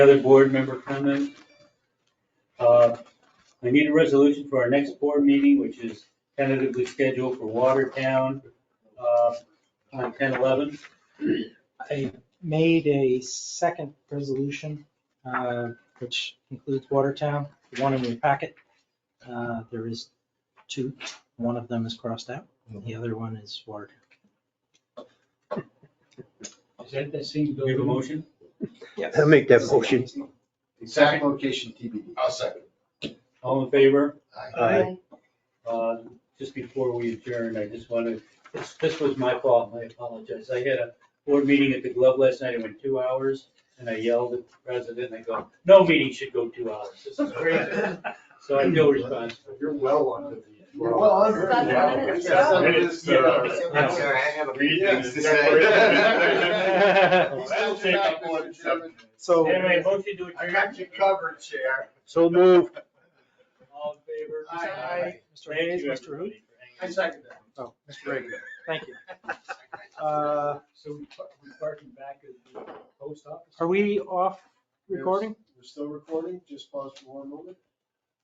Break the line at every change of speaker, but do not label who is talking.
Other board member comment? Uh, I need a resolution for our next board meeting, which is tentatively scheduled for Watertown uh, on 10/11.
I made a second resolution, uh, which includes Watertown, the one in your packet. Uh, There is two, one of them is crossed out, the other one is Watertown.
Is that the same
Do you have a motion?
I'll make that motion.
Exact location TBD.
I'll second.
All in favor?
Aye.
Uh, Just before we adjourn, I just wanted, this, this was my fault, and I apologize. I had a board meeting at the Globe last night, it went two hours, and I yelled at the president, and I go, no meeting should go two hours, this is crazy. So I feel responsible.
You're well under the.
You're well under.
Seven
Yeah.
minutes,
Yeah.
so-
It is, uh,
I'm
sorry,
I
have a
few things to
say.
That'll take up one, seven.
So,
Anyway, motion to
I
adjourn,
got you covered, Chair.
so moved.
all in favor?
Aye. Aye.
Mr. Hayes,
Thank you,
Mr. Hood,
everybody, for hanging
I second that.
Oh.
Mr. Reagan.
thank you. Uh,
So we par- we parking back at the post office?
Are we off recording?
We're still recording, just pause for one moment.